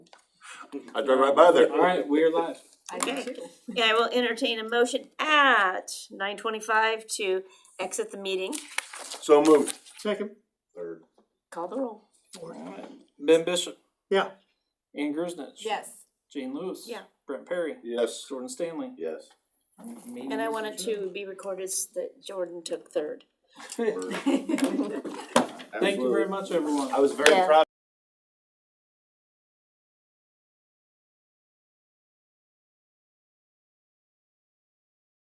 I drove right by there. Alright, we are live. Okay. Yeah, I will entertain a motion at nine twenty-five to exit the meeting. So moved. Second, Third. Call the roll. Alright. Ben Bishop, yeah. Ann Grusnich. Yes. Gene Lewis. Yeah. Brent Perry, Yes. Jordan Stanley. Yes. Meeting And I is want it adjourned. to be recorded s- that Jordan took third. Thank you very much, everyone. I was very Yeah. proud